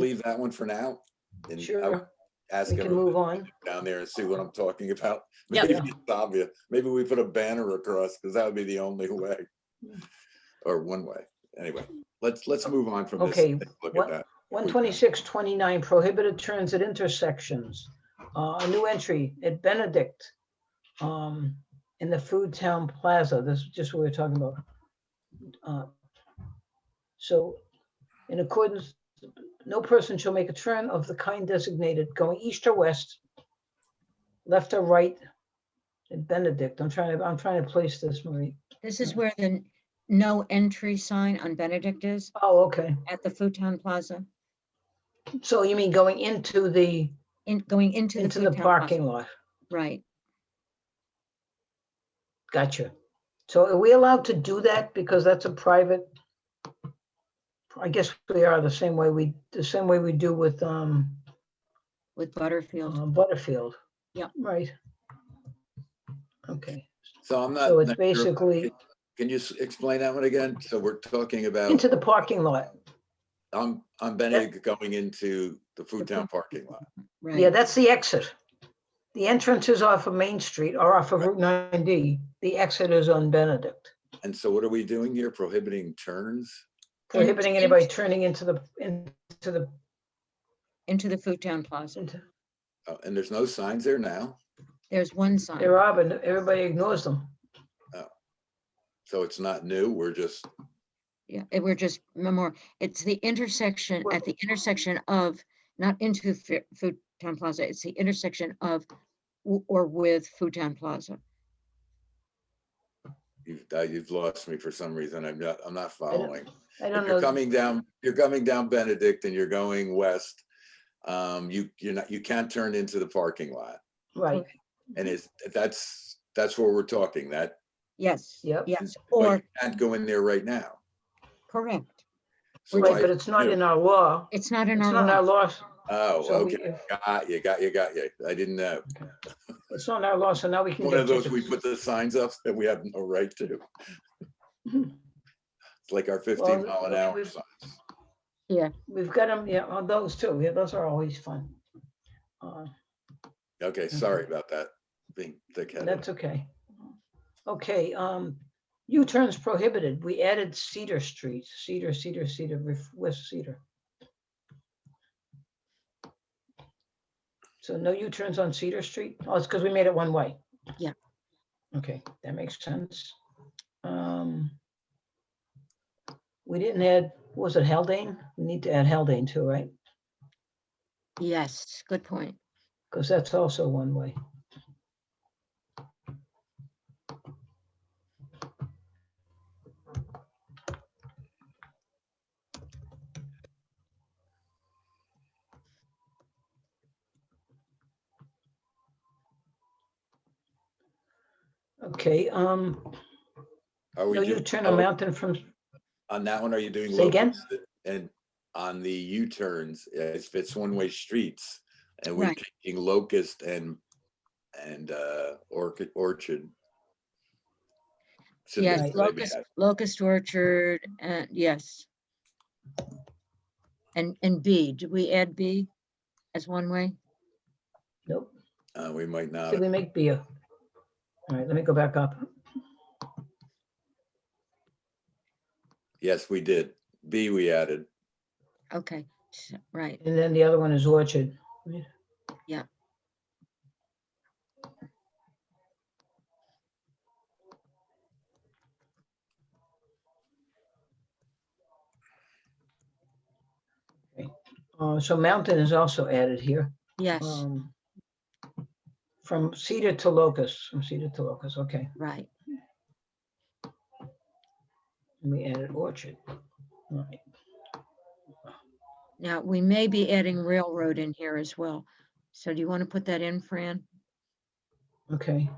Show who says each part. Speaker 1: leave that one for now? And I would
Speaker 2: Sure,
Speaker 1: Ask
Speaker 2: we can
Speaker 1: everyone
Speaker 2: move on.
Speaker 1: down there and see what I'm talking about.
Speaker 3: Yep.
Speaker 1: Maybe it's obvious. Maybe we put a banner across because that would be the only way. Or one way. Anyway, let's, let's move on from this.
Speaker 2: Okay,
Speaker 1: and take a Look
Speaker 2: what-
Speaker 1: at that.
Speaker 2: 126, 29, prohibited turns at intersections. Uh, A new entry at Benedict um, in the Food Town Plaza. This is just what we we're talking about. Uh, So in accordance, no person shall make a turn of the kind designated going east or west, left or right at Benedict. I'm trying to, I'm trying to place this, Marie.
Speaker 4: This is where the n- no entry sign on Benedict is
Speaker 2: Oh, okay.
Speaker 4: at the Futon Plaza,
Speaker 2: So you mean going into the,
Speaker 4: in, going into the.
Speaker 2: into the
Speaker 4: Futon Plaza.
Speaker 2: parking lot?
Speaker 4: Right.
Speaker 2: Gotcha. So are we allowed to do that because that's a private? I guess we are the same way we, the same way we do with um
Speaker 4: With Butterfield.
Speaker 2: uh, Butterfield.
Speaker 4: Yep.
Speaker 2: Right. Okay,
Speaker 1: So I'm not.
Speaker 2: so it's
Speaker 1: not sure-
Speaker 2: basically
Speaker 1: Can you s- explain that one again? So we're talking about,
Speaker 2: into the parking lot.
Speaker 1: I'm, I'm Benedict going into the Food Town parking lot.
Speaker 2: Yeah,
Speaker 4: Right.
Speaker 2: that's the exit. The entrance is off of Main Street or off of Route 9D. The exit is on Benedict,
Speaker 1: And so what are we doing here? Prohibiting turns?
Speaker 2: prohibiting anybody turning into the, into the,
Speaker 4: Into the Futon Plaza.
Speaker 2: into,
Speaker 1: Uh, And there's no signs there now?
Speaker 4: There's one sign.
Speaker 2: hey, Rob, and everybody ignores them.
Speaker 1: So it's not new, we're just,
Speaker 4: Yeah, it- we're just memor, it's the intersection,
Speaker 2: Well-
Speaker 4: at the intersection of, not into Fu- Futon Plaza, it's the intersection of w- or with Futon Plaza.
Speaker 1: you've, uh, you've lost me for some reason. I'm not, I'm not following.
Speaker 2: I don't
Speaker 1: If
Speaker 2: know.
Speaker 1: you're coming down, you're coming down Benedict and you're going west, um, you, you're not, you can't turn into the parking lot.
Speaker 2: Right,
Speaker 1: And
Speaker 2: Mm-hmm.
Speaker 1: it's, that's, that's where we're talking, that,
Speaker 4: Yes.
Speaker 2: Yep.
Speaker 4: Yes,
Speaker 1: but
Speaker 4: or,
Speaker 1: you can't go in there right now.
Speaker 4: correct.
Speaker 1: So
Speaker 2: right,
Speaker 1: I-
Speaker 2: but it's not
Speaker 1: yeah.
Speaker 2: in our law.
Speaker 4: It's not
Speaker 2: It's
Speaker 4: in
Speaker 2: not
Speaker 4: our
Speaker 2: in our
Speaker 4: law.
Speaker 2: law.
Speaker 1: Oh,
Speaker 2: so we-
Speaker 1: okay, got you, got you, got you. I didn't know.
Speaker 2: It's not in our law, so now we can.
Speaker 1: One
Speaker 2: get
Speaker 1: of those, we
Speaker 2: tickets.
Speaker 1: put the signs up that we have no right to. It's like our fifteen mile an
Speaker 2: okay,
Speaker 1: hour
Speaker 2: we've-
Speaker 1: sign.
Speaker 2: We've got them, yeah, on those too. Yeah, those are always fun. Uh,
Speaker 1: Okay, sorry about that, being thick-headed.
Speaker 2: That's okay. Okay, um, U-turns prohibited. We added Cedar Street, Cedar, Cedar, Cedar, Ref- West Cedar. So no U-turns on Cedar Street? Oh, it's because we made it one way.
Speaker 4: Yeah.
Speaker 2: Okay, that makes sense. Um, We didn't add, was it Haldane? We need to add Haldane too, right?
Speaker 4: Yes, good point.
Speaker 2: Because that's also one way. Okay, um,
Speaker 1: Are we
Speaker 2: no
Speaker 1: doing-
Speaker 2: U-turn
Speaker 1: oh,
Speaker 2: on Mountain from,
Speaker 1: On that one, are you doing?
Speaker 2: Say again?
Speaker 1: local- And on the U-turns, if it's one-way streets, and we're
Speaker 4: Right.
Speaker 1: taking Locust and, and uh Orchid, Orchard. Should
Speaker 4: Yes,
Speaker 1: maybe
Speaker 4: locust,
Speaker 1: add-
Speaker 4: locust orchard, and yes. And, and B, did we add B as one way?
Speaker 2: nope,
Speaker 1: uh, We might not.
Speaker 2: did we make beer? All right, let me go back up.
Speaker 1: Yes, we did. B we added.
Speaker 4: Okay, s- right,
Speaker 2: And then the other one is Orchard.
Speaker 4: Yeah.
Speaker 2: Okay. Uh, so Mountain is also added here.
Speaker 4: yes,
Speaker 2: um, From Cedar to Locust, from Cedar to Locust, okay.
Speaker 4: right.
Speaker 2: And we added Orchard. All right.
Speaker 4: Now, we may be adding railroad in here as well. So do you want to put that in, Fran?
Speaker 2: Okay,